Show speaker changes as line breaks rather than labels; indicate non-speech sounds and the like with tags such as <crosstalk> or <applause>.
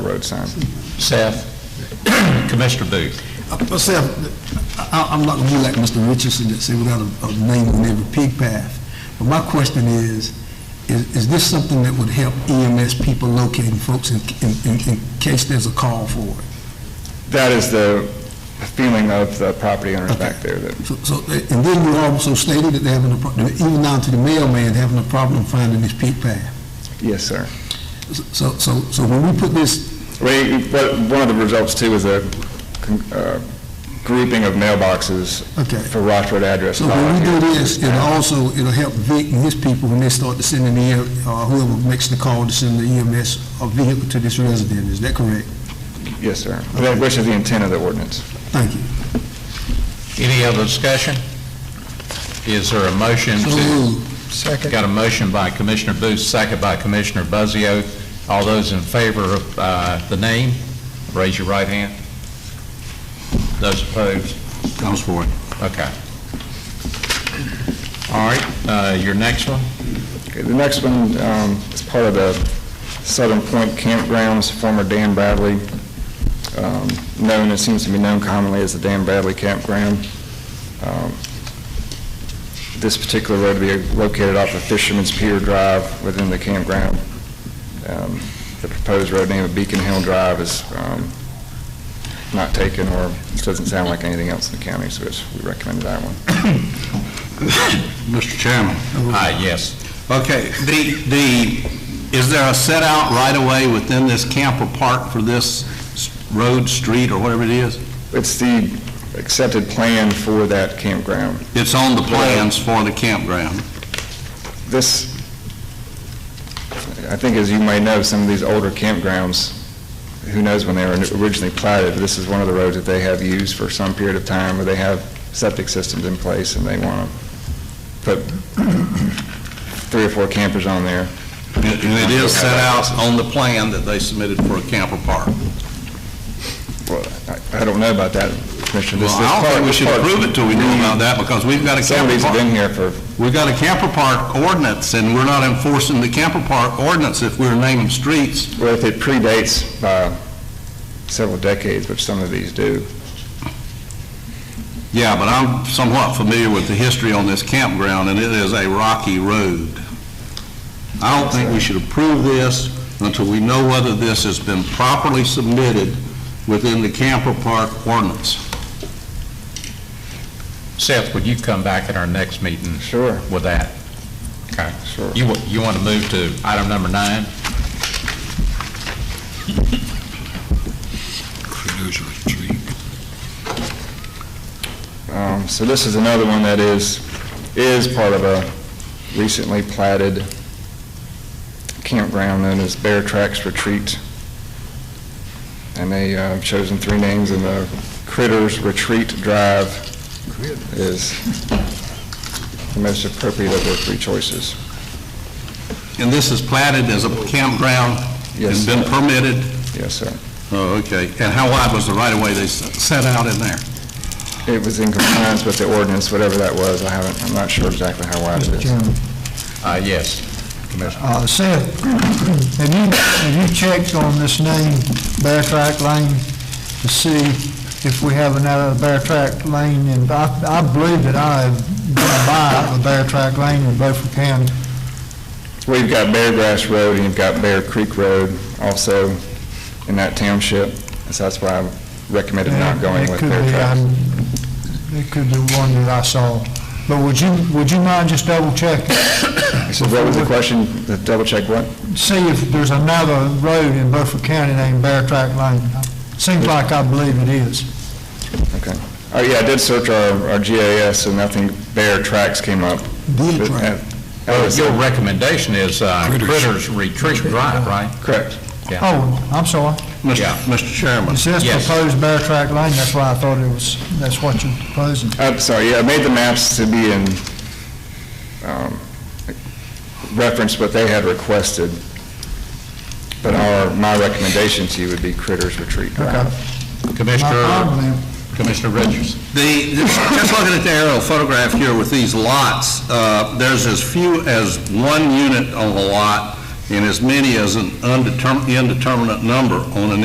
road sign.
Seth. <clears throat> Commissioner Booth.
Uh, Myself, I, I'm not gonna be like Mr. Richardson that said without a, a name on every pig path. But my question is, is, is this something that would help EMS people locating folks in, in, in- in case there's a call for it?
That is the feeling of the property owners back there, that
So, so, and then you also stated that they're having a, pro- even down to the mailman having a problem finding this pig path.
Yes, sir.
So, so, so when we put this,
We, but one of the results too is a con- uh, grouping of mailboxes
okay.
for Rochford address.
So when we do this, it'll also, it'll help Vic and his people when they start to send in the, uh, whoever makes the call to send the EMS a vehicle to this resident, is that correct?
Yes, sir. That- Which is the intent of the ordinance.
Thank you.
Any other discussion? Is there a motion to?
Second.
Got a motion by Commissioner Booth, second by Commissioner Buzzio. All those in favor of uh, the name, raise your right hand. Those opposed? Those for it. Okay. All right, uh, your next one?
Okay, the next one um, is part of the Southern Point Campgrounds, former Dan Bradley, um, known, it seems to be known commonly as the Dan Bradley Campground. Um, This particular road will be located off of Fisherman's Pier Drive within the campground. Um, The proposed road name of Beacon Hill Drive is um, not taken, or it doesn't sound like anything else in the county, so it's- we recommend that one.
Mr. Chairman.
Aye, Ah, yes.
Okay, the, the, is there a set out right away within this camper park for this s- road, street, or whatever it is?
It's the accepted plan for that campground.
It's on the plans for the campground.
This, I think as you may know, some of these older campgrounds, who knows when they were originally platted, but this is one of the roads that they have used for some period of time, where they have septic systems in place and they want to put three or four campers on there.
And and it is set out on the plan that they submitted for a camper park.
Well, I- I don't know about that, Commissioner. This-
Well, I
this
don't
part-
think we should
part-
approve it till we know about that, because we've got a
Some of
camper
these have been
park,
here for,
we've got a camper park ordinance, and we're not enforcing the camper park ordinance if we're naming streets.
well, if it predates by several decades, which some of these do.
Yeah, but I'm somewhat familiar with the history on this campground, and it is a rocky road. I don't think we should approve this until we know whether this has been properly submitted within the camper park ordinance.
Seth, would you come back at our next meeting
Sure.
with that? Okay.
Sure.
You, wa- you want to move to item number nine?
Um, So this is another one that is, is part of a recently platted campground known as Bear Tracks Retreat. And they uh, have chosen three names, and the Critters Retreat Drive is the most appropriate of their three choices.
And this is platted as a campground
Yes.
and been permitted?
Yes, sir.
Oh, okay. And how wide was the right-of-way they s- set out in there?
It was in compliance with the ordinance, whatever that was. I haven't, I'm not sure exactly how wide it
Mr.
is.
Chairman,
Uh, yes. Commissioner.
uh, Seth, have you, have you checked on this name, Bear Track Lane, to see if we have another Bear Track Lane? And I, I believe that I have gone by the Bear Track Lane in Beaufort County.
We've got Bear Grass Road and you've got Bear Creek Road also in that township, so that's why I recommended not going with Bear Tracks.
It could be one that I saw. But would you, would you mind just double checking,
So what was the question, The double check what?
see if there's another road in Beaufort County named Bear Track Lane? Seems like I believe it is.
Okay. Oh, yeah, I did search our, our GIS and nothing, Bear Tracks came up.
Bear
But,
Track.
uh, oh, it's-
Your recommendation is uh, Critters Retreat Drive, right?
Correct.
Oh, I'm sorry.
Mr.
Yeah.
Mr. Chairman?
It says
Yes.
proposed Bear Track Lane, that's why I thought it was, that's what you're proposing.
I'm Uh, sorry, yeah, I made the maps to be in, um, reference what they had requested, but our, my recommendation to you would be Critters Retreat Drive.
My
Commissioner,
problem then.
Commissioner Richardson.
The, just looking at the aerial photograph here with these lots, uh, there's as few as one unit on a lot and as many as an undetermined, indeterminate number on an